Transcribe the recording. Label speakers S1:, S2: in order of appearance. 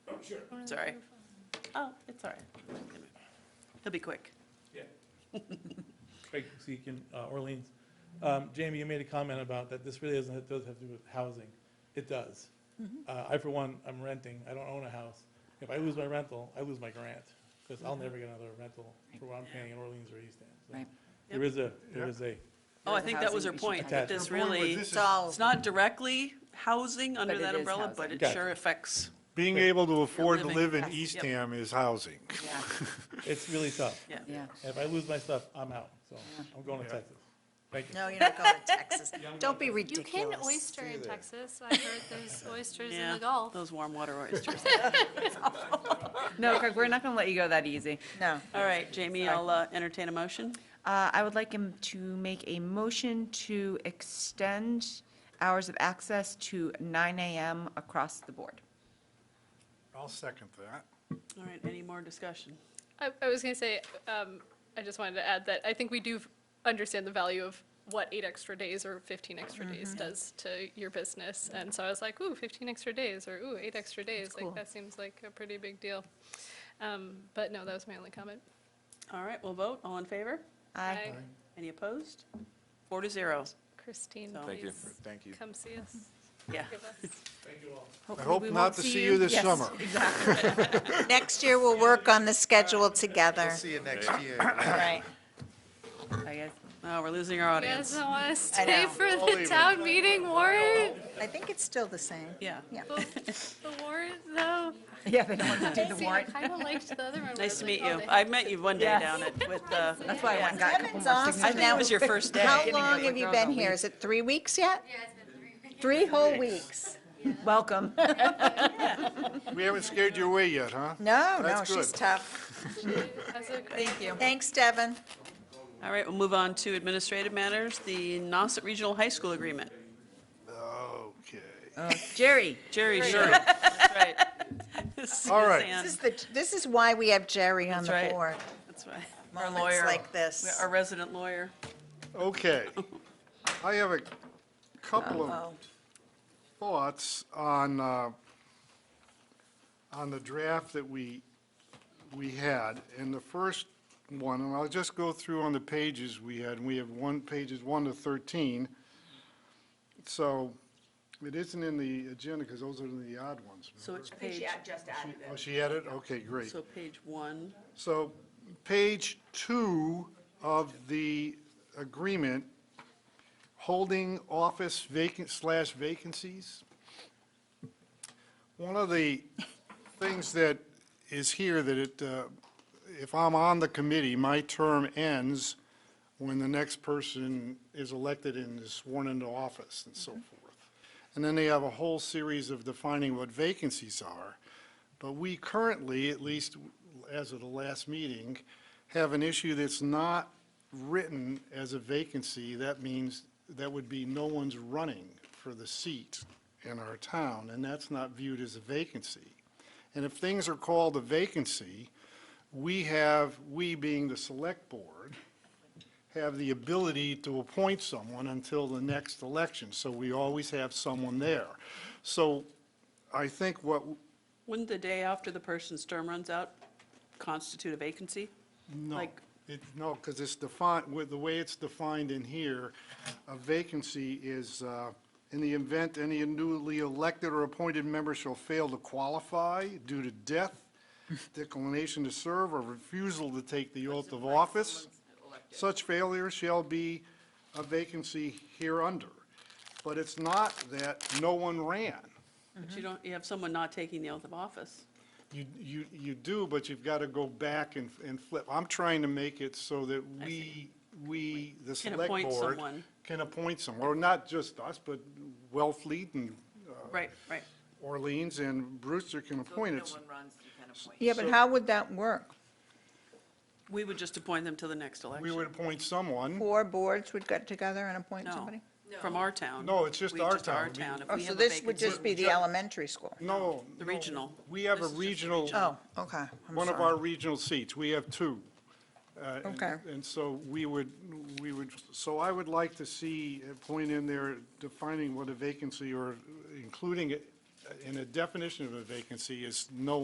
S1: Sure.
S2: Sorry. Oh, it's all right. He'll be quick.
S1: Yeah. Craig Seekin, uh, Orleans. Um, Jamie, you made a comment about that this really doesn't, doesn't have to do with housing. It does. Uh, I, for one, I'm renting. I don't own a house. If I lose my rental, I lose my grant, because I'll never get another rental for what I'm paying in Orleans or East End. So
S3: Right.
S1: There is a, there is a,
S2: Oh, I think that was her
S3: Housing issue.
S2: point, that
S1: Attached.
S2: this
S4: Her point was
S2: really,
S4: this is-
S2: it's
S3: It's all,
S2: not directly housing under
S3: But
S2: that
S3: it is
S2: umbrella, but
S3: housing.
S2: it
S1: Gotcha.
S2: sure affects.
S4: Being able to afford to
S2: living
S4: live in
S2: costs, yep.
S4: Eastham is housing.
S3: yeah,
S1: it's really tough.
S2: Yeah.
S3: yeah.
S1: And If I lose my stuff, I'm out, so I'm going to Texas. Thank you.
S3: No, you're not going to Texas. Don't be
S5: You can
S3: ridiculous.
S5: oyster in Texas. I heard there's oysters in
S2: Yeah,
S5: the Gulf.
S2: Those warm water oysters.
S6: No, Craig, we're not going to let you go that easy.
S3: No.
S2: All right, Jamie, I'll uh, entertain a motion.
S6: Uh, I would like him to make a motion to extend hours of access to 9 AM across the board.
S4: I'll second that.
S2: All right, any more discussion?
S5: I, I was going to say, um, I just wanted to add that I think we do f- understand the value of what eight extra days or 15 extra days does to your business. And so I was like, ooh, 15 extra days or ooh, eight extra days. like
S6: cool.
S5: that seems like a pretty big deal. Um, but no, that was my only comment.
S2: All right, we'll vote. All in favor?
S5: Aye.
S2: Any opposed? Four to zero.
S5: Christine,
S2: So-
S7: Thank you.
S5: please
S7: Thank you.
S5: come see us.
S2: Yeah.
S5: Give us.
S4: I
S6: Hopefully
S4: hope
S6: we
S4: not
S6: won't
S4: to see you this
S6: Yes,
S4: summer.
S6: Exactly.
S3: Next year, we'll work on the schedule together.
S7: See you next year.
S3: Right.
S6: I guess.
S2: Oh, we're losing our
S5: You
S2: audience.
S5: guys don't want to
S3: I
S5: stay
S3: know.
S5: for the town meeting warrant?
S3: I think it's still the same.
S2: Yeah.
S3: Yeah.
S5: The the warrant, though?
S6: Yeah, they don't want to do the
S5: See, I
S6: warrant.
S5: kind of liked the other one. where
S2: Nice to
S5: it was
S2: meet
S5: like, oh,
S2: you.
S5: they
S2: I met you one day
S6: Yes.
S2: down at, with, uh,
S6: That's why I went and got a couple
S3: Kevin's
S6: more
S3: awesome.
S2: I
S6: signatures.
S2: think it was your first day.
S3: How
S6: Getting
S3: long
S6: the
S3: have you
S6: girls
S3: been
S6: all
S3: here?
S6: week.
S3: Is it three weeks yet?
S8: Yeah, it's been three weeks.
S3: Three whole weeks?
S6: Welcome.
S4: We haven't scared you away yet, huh?
S3: No, no,
S4: That's
S3: she's
S4: good.
S3: tough.
S5: That's a great
S3: Thank you. Thanks, Devin.
S2: All right, we'll move on to administrative matters, the Nauset Regional High School Agreement.
S4: Okay.
S6: Jerry.
S2: Jerry, sure. That's right.
S4: All right.
S2: Suzanne,
S3: This is the, this is why we have Jerry on
S2: That's
S3: the
S2: right.
S3: board.
S2: That's right. Our
S3: Moments
S2: lawyer,
S3: like this.
S2: our resident lawyer.
S4: Okay. I have a couple of
S3: Oh,
S4: thoughts on, uh, on the draft that we, we had. And the first one, and I'll just go through on the pages we had, and we have one, pages 1 to 13. So it isn't in the agenda because those are the odd ones.
S2: So it's page,
S4: Oh, she had it? Okay, great.
S2: so page one.
S4: So page two of the agreement, holding office vacant slash vacancies. One of the things that is here that it, uh, if I'm on the committee, my term ends when the next person is elected and is sworn into office and so forth. And then they have a whole series of defining what vacancies are. But we currently, at least as of the last meeting, have an issue that's not written as a vacancy. That means that would be no one's running for the seat in our town, and that's not viewed as a vacancy. And if things are called a vacancy, we have, we being the select board, have the ability to appoint someone until the next election. So we always have someone there. So I think what,
S2: Wouldn't the day after the person's term runs out constitute a vacancy?
S4: No,
S2: Like-
S4: it, no, because it's defined, with the way it's defined in here, a vacancy is, uh, in the event any newly elected or appointed member shall fail to qualify due to death, declination to serve, or refusal to take the oath of office, such failure shall be a vacancy hereunder. But it's not that no one ran.
S2: But
S3: Mm-hmm.
S2: you don't, you have someone not taking the oath of office.
S4: You, you, you do, but you've got to go back and, and flip. I'm trying to make it so that we, we, the
S2: Can
S4: select
S2: appoint
S4: board.
S2: someone.
S4: Can appoint someone, or not just us, but Wellfleet and
S2: Right, right.
S4: Orleans and Brewster can appoint it.
S3: Yeah, but how would that work?
S2: We would just appoint them till the next election.
S4: We would appoint someone.
S3: Four boards would get together and appoint
S2: No,
S3: somebody?
S2: from our town.
S4: No, it's just
S2: We-
S4: our
S2: our
S4: town. We-
S2: town. If
S3: Oh,
S2: we
S3: so
S2: have a
S3: this would
S2: vacancy-
S3: just be the elementary school?
S4: No.
S2: The
S4: no,
S2: regional.
S4: We have a
S2: This is just the
S4: regional,
S3: Oh, okay. I'm
S4: one of
S3: sorry.
S4: our regional seats. We have two. Uh, and-
S3: Okay.
S4: And so we would, we would, so I would like to see a point in there defining what a vacancy or including it in a definition of a vacancy is no